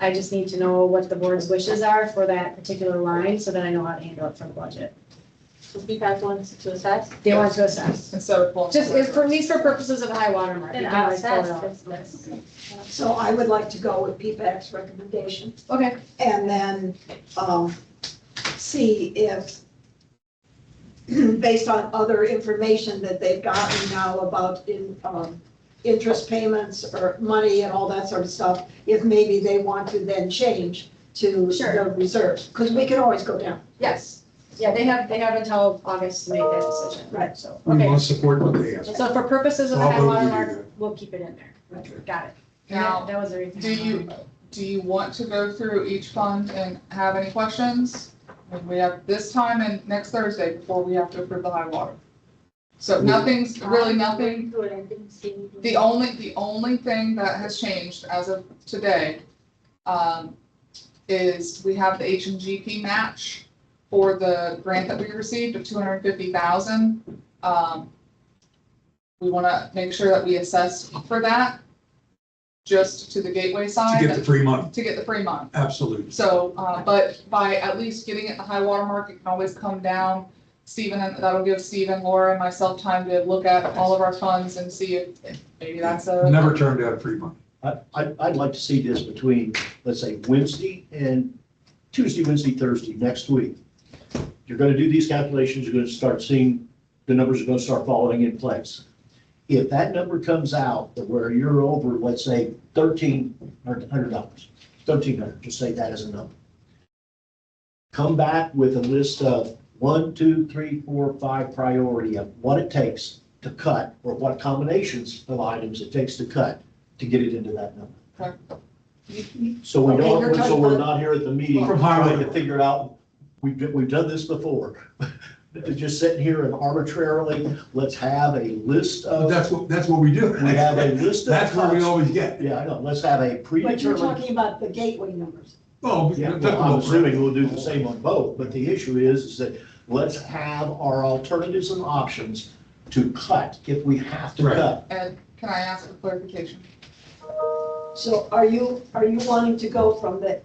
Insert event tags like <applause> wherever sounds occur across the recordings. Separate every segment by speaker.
Speaker 1: I just need to know what the board's wishes are for that particular line, so that I know how to handle it for the budget.
Speaker 2: So PPAC wants to assess?
Speaker 1: They want to assess,
Speaker 3: instead of pulling.
Speaker 1: just, it's for, at least for purposes of high water mark.
Speaker 2: Then
Speaker 1: you
Speaker 2: I'll
Speaker 1: can always pull it
Speaker 2: assess
Speaker 1: off.
Speaker 2: this list.
Speaker 4: So I would like to go with PPAC's recommendation
Speaker 1: Okay,
Speaker 4: and then, um, see if, <clears throat> based on other information that they've gotten now about in, um, interest payments or money and all that sort of stuff, if maybe they want to then change to
Speaker 1: Sure.
Speaker 4: the reserves, because we can always go down.
Speaker 1: yes, yeah, they have, they have until August to make that decision.
Speaker 4: Right.
Speaker 1: So,
Speaker 5: We
Speaker 1: okay,
Speaker 5: want to support what they ask.
Speaker 1: so for purposes of
Speaker 5: I'll
Speaker 1: high
Speaker 5: vote
Speaker 1: water
Speaker 5: we do
Speaker 1: mark,
Speaker 5: that.
Speaker 1: we'll keep it in there.
Speaker 5: Right.
Speaker 1: Got it.
Speaker 3: Now,
Speaker 1: That was everything.
Speaker 3: do you, do you want to go through each fund and have any questions? And we have this time and next Thursday before we have to approve the high water. So nothing's, really nothing
Speaker 2: Good, I didn't see anything.
Speaker 3: The only, the only thing that has changed as of today, um, is we have the H and GP match for the grant that we received of two hundred and fifty thousand. Um, we wanna make sure that we assess for that, just to the gateway side.
Speaker 5: To get the free money,
Speaker 3: To get the free month.
Speaker 5: absolutely.
Speaker 3: So, uh, but by at least getting it the high water mark, it can always come down. Stephen, and that'll give Stephen, Laura and myself time to look at all of our funds and see if maybe that's a.
Speaker 5: Never turned down free money.
Speaker 6: I, I'd, I'd like to see this between, let's say, Wednesday and Tuesday, Wednesday, Thursday, next week. You're gonna do these calculations, you're gonna start seeing, the numbers are gonna start falling in place. If that number comes out that where you're over, let's say thirteen hundred dollars, thirteen hundred, just say that as a number. Come back with a list of one, two, three, four, five priority of what it takes to cut or what combinations of items it takes to cut to get it into that number. So we
Speaker 4: Okay, you're
Speaker 6: don't, so
Speaker 4: talking
Speaker 6: we're
Speaker 4: about-
Speaker 6: not here at the meeting
Speaker 5: From Harvard.
Speaker 6: trying to figure out, we've, done- we've done this before. <laughs> Just sitting here and arbitrarily, let's have a list
Speaker 5: But
Speaker 6: of,
Speaker 5: That's what, that's what we do.
Speaker 6: we have a list of.
Speaker 5: That's where we
Speaker 6: cuts.
Speaker 5: always get.
Speaker 6: Yeah, I know, let's have a
Speaker 4: But you're
Speaker 6: predetermined.
Speaker 4: talking about the gateway numbers.
Speaker 5: Well, we-
Speaker 6: Yeah,
Speaker 5: that's
Speaker 6: well, I'm
Speaker 5: what we're-
Speaker 6: assuming we'll do the same on both, but the issue is, is that let's have our alternatives and options to cut if we have to
Speaker 5: Right.
Speaker 6: cut.
Speaker 3: Ed, can I ask for clarification?
Speaker 4: So are you, are you wanting to go from the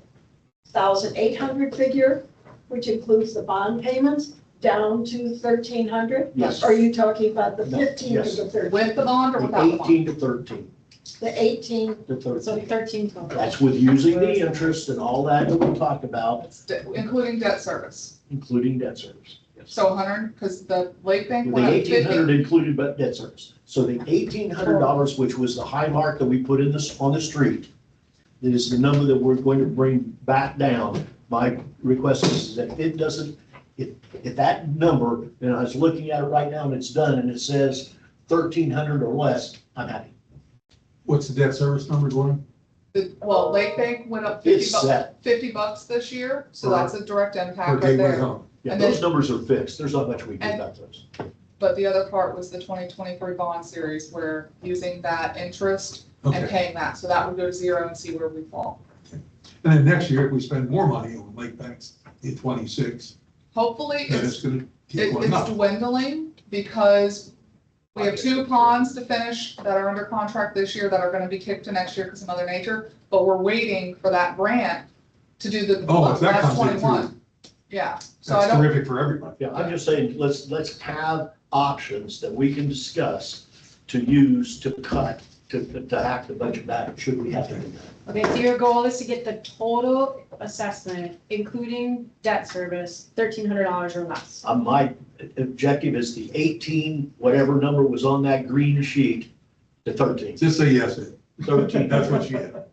Speaker 4: thousand eight hundred figure, which includes the bond payments, down to thirteen hundred?
Speaker 6: Yes.
Speaker 4: Are you talking about the
Speaker 6: No,
Speaker 4: fifteen to
Speaker 6: yes.
Speaker 4: the thirteen,
Speaker 3: With the bond or without the bond?
Speaker 6: Eighteen to thirteen,
Speaker 4: the eighteen?
Speaker 6: to
Speaker 1: So
Speaker 6: thirteen.
Speaker 1: thirteen total.
Speaker 6: That's with using the interest and all that that we talked about,
Speaker 3: It's de- Including debt service.
Speaker 6: including debt service.
Speaker 3: So a hundred, because the lake bank
Speaker 6: The
Speaker 3: went up
Speaker 6: eighteen
Speaker 3: fifty.
Speaker 6: hundred included but debt service. So the eighteen hundred dollars, which was the high mark that we put in this, on the street, is the number that we're going to bring back down. My request is that if it doesn't, if, if that number, and I was looking at it right now and it's done and it says thirteen hundred or less, I'm happy.
Speaker 5: What's the debt service number going?
Speaker 3: The- Well, lake bank went up fifty
Speaker 6: It's
Speaker 3: bucks,
Speaker 6: set.
Speaker 3: fifty bucks this year, so
Speaker 5: For-
Speaker 3: that's a direct
Speaker 5: For
Speaker 3: impact right
Speaker 5: Gateway
Speaker 3: there.
Speaker 5: Home?
Speaker 6: Yeah,
Speaker 3: And then-
Speaker 6: those numbers are fixed. There's not much we can do about those.
Speaker 3: But the other part was the twenty twenty-three bond series, where using that interest and
Speaker 5: Okay.
Speaker 3: paying that, so that would go to zero and see where we fall.
Speaker 5: And then next year, if we spend more money on lake banks in twenty-six,
Speaker 3: Hopefully,
Speaker 5: then
Speaker 3: it's,
Speaker 5: it's gonna keep
Speaker 3: it-
Speaker 5: going
Speaker 3: it's
Speaker 5: up.
Speaker 3: dwindling, because we have two ponds to finish that are under contract this year that are gonna be kicked to next year because of Mother Nature, but we're waiting for that grant to do the,
Speaker 5: Oh, if that
Speaker 3: that's
Speaker 5: comes in
Speaker 3: twenty-one,
Speaker 5: too,
Speaker 3: yeah, so I
Speaker 5: that's
Speaker 3: don't,
Speaker 5: terrific for everybody.
Speaker 6: Yeah, I'm just saying, let's, let's have options that we can discuss to use to cut, to, to hack the budget back, should we have to do that.
Speaker 1: Okay, so your goal is to get the total assessment, including debt service, thirteen hundred dollars or less.
Speaker 6: Uh, my objective is the eighteen, whatever number was on that green sheet, to thirteen.
Speaker 5: Just say yes, Ed.
Speaker 6: Thirteen.
Speaker 5: that's what she had.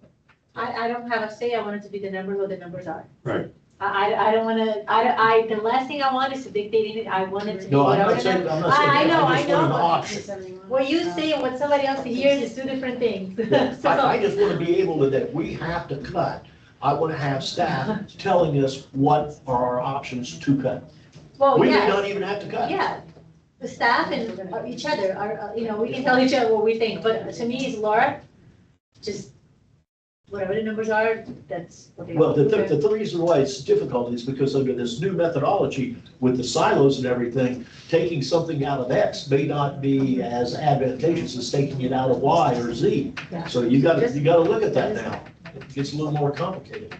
Speaker 2: I, I don't have a say, I want it to be the numbers where the numbers are.
Speaker 5: Right.
Speaker 2: I, I, I don't wanna, I, I, the last thing I want is to dictate it, I want it to be
Speaker 6: No, I'm
Speaker 2: whatever.
Speaker 6: not
Speaker 2: the-
Speaker 6: saying, I'm not
Speaker 2: I-
Speaker 6: saying.
Speaker 2: I
Speaker 6: that.
Speaker 2: know, I
Speaker 6: just want an
Speaker 2: know. <laughs>
Speaker 6: Option.
Speaker 2: What you say and what somebody else hears is two different things. <laughs>
Speaker 6: Yeah,
Speaker 2: So-
Speaker 6: I, I just want to be able to, that we have to cut, I want to have staff telling us what are our options to cut.
Speaker 2: Well,
Speaker 6: We may
Speaker 2: Oh, yes.
Speaker 6: not even have to cut.
Speaker 2: Yeah, the staff and uh, each other are, uh, you know, we can tell each other what we think, but to me, it's Laura, just whatever the numbers are, that's what they.
Speaker 6: Well, the, the, the reason why it's difficult is because under this new methodology with the silos and everything, taking something out of X may not be as advantageous as taking it out of Y or Z.
Speaker 2: Yeah.
Speaker 6: So you gotta, you gotta look at that now. it gets a little more complicated.